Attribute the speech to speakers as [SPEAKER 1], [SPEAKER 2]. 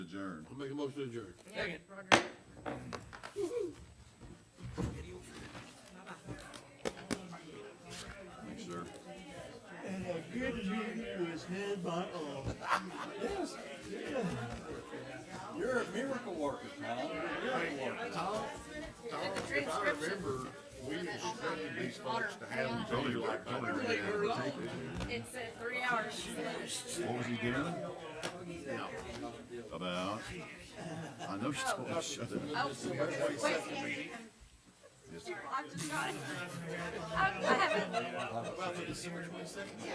[SPEAKER 1] adjourn.
[SPEAKER 2] I'll make a motion to adjourn.
[SPEAKER 3] Second.
[SPEAKER 1] Thanks, sir.
[SPEAKER 4] And a good meeting was had by all.
[SPEAKER 1] Yes. You're a miracle worker, pal.
[SPEAKER 2] Tom, Tom, if I remember, we expected these folks to have them tell you like.
[SPEAKER 1] Tony ran out of tape.
[SPEAKER 3] It said three hours.
[SPEAKER 1] What was he doing? About, I know she's told us, shut it.
[SPEAKER 3] Oh, wait. I've just got it. I I haven't.